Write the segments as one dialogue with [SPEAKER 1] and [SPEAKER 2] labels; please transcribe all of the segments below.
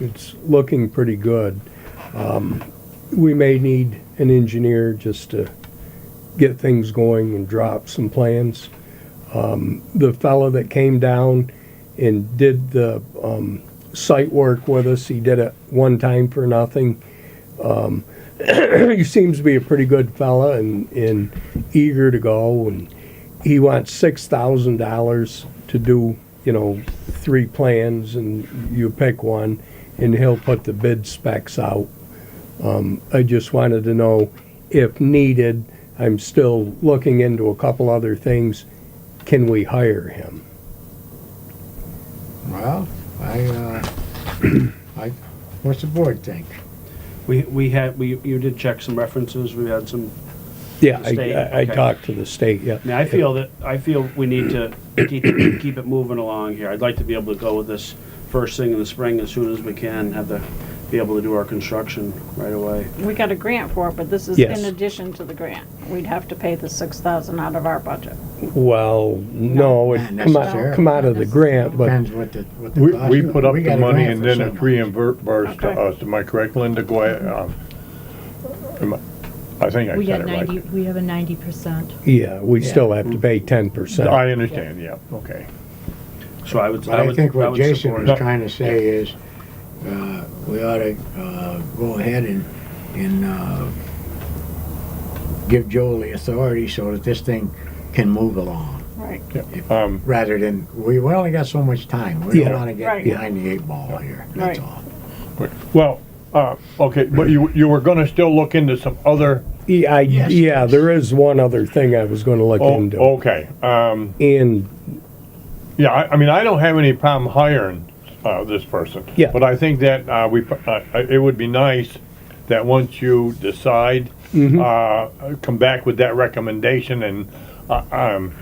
[SPEAKER 1] it's looking pretty good. Um, We may need an engineer just to get things going and drop some plans. Um, The fellow that came down and did the um, site work with us, he did it one time for nothing. Um, He seems to be a pretty good fella and, and eager to go, and he wants six thousand dollars to do, you know, three plans, and you pick one, and he'll put the bid specs out. Um, I just wanted to know if needed, I'm still looking into a couple other things, can we hire him?
[SPEAKER 2] Well, I, uh, I, what's the board think?
[SPEAKER 3] We, we had, we, you did check some references, we had some,
[SPEAKER 1] Yeah,
[SPEAKER 3] The
[SPEAKER 1] I-
[SPEAKER 3] state,
[SPEAKER 1] I, I
[SPEAKER 3] okay.
[SPEAKER 1] talked to the state, yeah.
[SPEAKER 3] I mean, I feel that, I feel we need to keep, keep it moving along here. I'd like to be able to go with this first thing in the spring as soon as we can, have the, be able to do our construction right away.
[SPEAKER 4] We got a grant for it, but this is
[SPEAKER 1] Yes.
[SPEAKER 4] in addition to the grant. We'd have to pay the six thousand out of our budget.
[SPEAKER 1] Well, no, it
[SPEAKER 2] Not
[SPEAKER 1] come out,
[SPEAKER 2] necessarily.
[SPEAKER 1] come out of the grant, but
[SPEAKER 2] Depends what the, what the.
[SPEAKER 5] We,
[SPEAKER 2] cost-
[SPEAKER 5] we put up the
[SPEAKER 2] got a
[SPEAKER 5] money
[SPEAKER 2] grant
[SPEAKER 5] and
[SPEAKER 2] for
[SPEAKER 5] then
[SPEAKER 2] so
[SPEAKER 5] it's
[SPEAKER 2] much.
[SPEAKER 5] reimbursed to
[SPEAKER 4] Okay.
[SPEAKER 5] us, am I correct, Linda, go ahead, um, am I I think I
[SPEAKER 6] We
[SPEAKER 5] said
[SPEAKER 6] had
[SPEAKER 5] it
[SPEAKER 6] ninety,
[SPEAKER 5] right.
[SPEAKER 6] we have a ninety percent.
[SPEAKER 1] yeah, we still have to pay ten percent.
[SPEAKER 5] I understand, yeah, okay.
[SPEAKER 3] So I would,
[SPEAKER 2] But
[SPEAKER 3] I
[SPEAKER 2] I
[SPEAKER 3] would,
[SPEAKER 2] think
[SPEAKER 3] I
[SPEAKER 2] what
[SPEAKER 3] would
[SPEAKER 2] Jason
[SPEAKER 3] support
[SPEAKER 2] was
[SPEAKER 3] it.
[SPEAKER 2] trying to say is, uh, we ought to, uh, go ahead and, and, uh, give Joel the authority so that this thing can move along,
[SPEAKER 4] Right.
[SPEAKER 5] Um,
[SPEAKER 2] rather than, we, we only got so much time. We don't
[SPEAKER 1] Yeah.
[SPEAKER 2] wanna get
[SPEAKER 4] Right.
[SPEAKER 2] behind the eight ball here, that's
[SPEAKER 4] Right.
[SPEAKER 2] all.
[SPEAKER 5] well, uh, okay, but you, you were gonna still look into some other,
[SPEAKER 1] Yeah, I,
[SPEAKER 2] Yes.
[SPEAKER 1] yeah, there is one other thing I was gonna look
[SPEAKER 5] oh,
[SPEAKER 1] into,
[SPEAKER 5] okay, um,
[SPEAKER 1] and
[SPEAKER 5] yeah, I, I mean, I don't have any problem hiring, uh, this person.
[SPEAKER 1] Yeah.
[SPEAKER 5] But I think that, uh, we, uh, it would be nice that once you decide,
[SPEAKER 2] Mm-hmm.
[SPEAKER 5] uh, come back with that recommendation and, uh, um,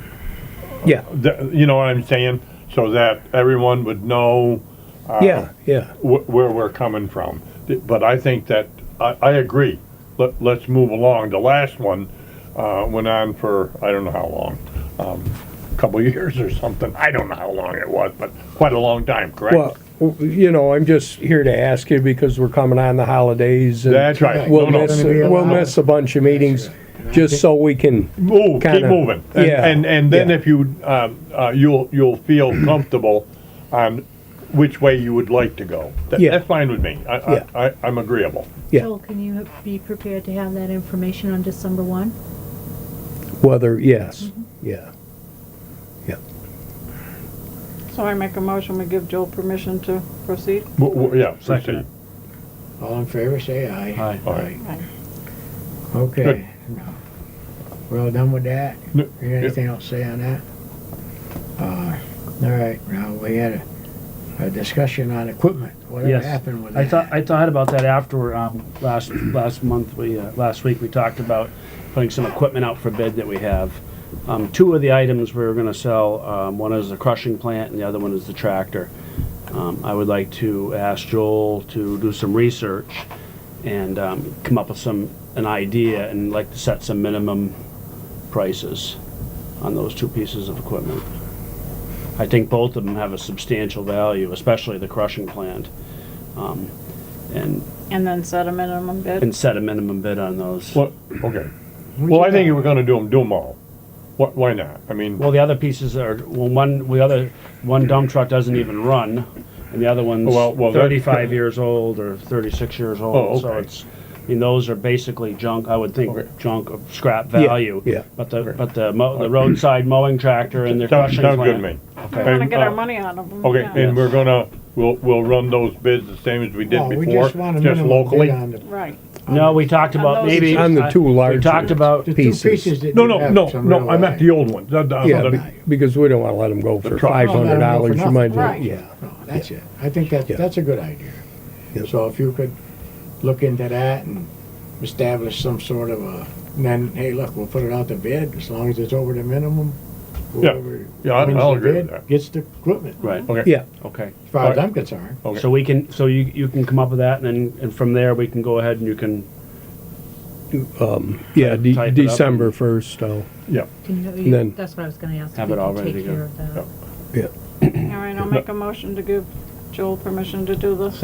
[SPEAKER 1] Yeah,
[SPEAKER 5] Th- you know what I'm saying? So that everyone would know
[SPEAKER 1] yeah, yeah,
[SPEAKER 5] wh- where we're coming from. Th- But I think that, I, I agree. Let, let's move along. The last one, uh, went on for, I don't know how long, um, a couple of years or something. I don't know how long it was, but quite a long time,
[SPEAKER 1] well,
[SPEAKER 5] correct?
[SPEAKER 1] w- you know, I'm just here to ask you because we're coming on the holidays and
[SPEAKER 5] That's right.
[SPEAKER 1] we'll
[SPEAKER 5] No, no.
[SPEAKER 1] miss,
[SPEAKER 2] Gonna be a
[SPEAKER 1] we'll
[SPEAKER 2] lot.
[SPEAKER 1] miss a bunch of meetings, just so we can,
[SPEAKER 5] Move, keep
[SPEAKER 1] kinda-
[SPEAKER 5] moving. And,
[SPEAKER 1] yeah,
[SPEAKER 5] and, and then
[SPEAKER 1] yeah.
[SPEAKER 5] if you, um, uh, you'll, you'll feel comfortable on which way you would like to go. That-
[SPEAKER 1] Yeah.
[SPEAKER 5] That's fine with me. I,
[SPEAKER 1] Yeah.
[SPEAKER 5] I, I- I'm agreeable.
[SPEAKER 1] Yeah.
[SPEAKER 6] Joel, can you ha- be prepared to have that information on December one?
[SPEAKER 1] whether, yes, yeah.
[SPEAKER 4] So I make a motion, we give Joel permission to proceed.
[SPEAKER 5] W- w- Yeah,
[SPEAKER 3] Second
[SPEAKER 5] proceed.
[SPEAKER 2] All in favor, say aye.
[SPEAKER 3] Aye.
[SPEAKER 5] Aye.
[SPEAKER 4] Aye.
[SPEAKER 5] Good.
[SPEAKER 2] Okay. We're all done with that?
[SPEAKER 5] No,
[SPEAKER 2] You got anything else to say on that? Uh, all right, now, we had a, a discussion on equipment, whatever
[SPEAKER 3] Yes.
[SPEAKER 2] happened with that?
[SPEAKER 3] I thought, I thought about that after, um, last, last month, we, uh, last week, we talked about putting some equipment out for bid that we have. Um, two of the items we were gonna sell, um, one is the crushing plant and the other one is the tractor. Um, I would like to ask Joel to do some research and, um, come up with some, an idea and like to set some minimum prices on those two pieces of equipment. I think both of them have a substantial value, especially the crushing plant. Um, and,
[SPEAKER 4] And then set a minimum bid.
[SPEAKER 3] and set a minimum bid on those.
[SPEAKER 5] Well, okay. Well, I think if we're gonna do them, do them all. Wh- Why not? I mean,
[SPEAKER 3] Well, the other pieces are, well, one, the other, one dump truck doesn't even run, and the other one's
[SPEAKER 5] Well, well, that-
[SPEAKER 3] thirty-five years old or thirty-six years
[SPEAKER 5] Oh,
[SPEAKER 3] old, so
[SPEAKER 5] okay.
[SPEAKER 3] it's, I mean, those are basically junk, I would think
[SPEAKER 5] Okay.
[SPEAKER 3] junk of scrap value.
[SPEAKER 1] yeah.
[SPEAKER 3] But the, but the mo- the roadside mowing tractor and the
[SPEAKER 5] sounds
[SPEAKER 3] crushing
[SPEAKER 5] sounds
[SPEAKER 3] plant.
[SPEAKER 5] good to me.
[SPEAKER 4] We wanna
[SPEAKER 5] And,
[SPEAKER 4] get our
[SPEAKER 5] uh,
[SPEAKER 4] money out of them.
[SPEAKER 5] Okay,
[SPEAKER 4] yeah.
[SPEAKER 5] and we're gonna, we'll, we'll run those bids the same as we did
[SPEAKER 2] No, we
[SPEAKER 5] before,
[SPEAKER 2] just want a
[SPEAKER 5] just
[SPEAKER 2] minimum bid
[SPEAKER 5] locally.
[SPEAKER 2] on the-
[SPEAKER 4] Right.
[SPEAKER 3] No, we talked
[SPEAKER 4] On
[SPEAKER 3] about
[SPEAKER 4] those
[SPEAKER 3] maybe.
[SPEAKER 1] On the
[SPEAKER 3] I-
[SPEAKER 1] two larger
[SPEAKER 3] We talked about,
[SPEAKER 2] The two
[SPEAKER 1] Pieces.
[SPEAKER 2] pieces that
[SPEAKER 5] No,
[SPEAKER 2] you
[SPEAKER 5] no,
[SPEAKER 2] have,
[SPEAKER 5] no,
[SPEAKER 2] some
[SPEAKER 5] no,
[SPEAKER 2] real
[SPEAKER 5] I meant
[SPEAKER 2] value.
[SPEAKER 5] the old ones. The- the-
[SPEAKER 1] Yeah,
[SPEAKER 5] the-
[SPEAKER 1] be- because we don't wanna let them go for
[SPEAKER 5] truck.
[SPEAKER 1] five hundred dollars, you might,
[SPEAKER 4] Right.
[SPEAKER 1] yeah.
[SPEAKER 2] No, Oh, that's it. I think that,
[SPEAKER 1] Yeah.
[SPEAKER 2] that's a good idea.
[SPEAKER 1] Yeah.
[SPEAKER 2] So if you could look into that and establish some sort of a, and then, hey, look, we'll put it out to bid as long as it's over the minimum.
[SPEAKER 5] Yeah.
[SPEAKER 2] whoever
[SPEAKER 5] Yeah, I-
[SPEAKER 2] wins
[SPEAKER 5] I'll
[SPEAKER 2] the
[SPEAKER 5] agree with
[SPEAKER 2] bid
[SPEAKER 5] that.
[SPEAKER 2] Gets the equipment,
[SPEAKER 3] right,
[SPEAKER 5] Okay,
[SPEAKER 1] Yeah,
[SPEAKER 3] okay.
[SPEAKER 2] as far as I'm concerned.
[SPEAKER 5] okay.
[SPEAKER 3] So we can, so you, you can come up with that, and then, and from there, we can go ahead and you can,
[SPEAKER 1] um, yeah,
[SPEAKER 3] Type-
[SPEAKER 1] de-
[SPEAKER 3] type it up.
[SPEAKER 1] December first, so,
[SPEAKER 6] Can you-
[SPEAKER 1] And then-
[SPEAKER 6] you, that's what I was gonna ask. if
[SPEAKER 3] Have
[SPEAKER 6] you
[SPEAKER 3] it
[SPEAKER 6] can
[SPEAKER 3] all ready
[SPEAKER 6] take
[SPEAKER 3] to go.
[SPEAKER 6] care of that.
[SPEAKER 1] yeah.
[SPEAKER 4] All right, I'll make a motion to give Joel permission to do this.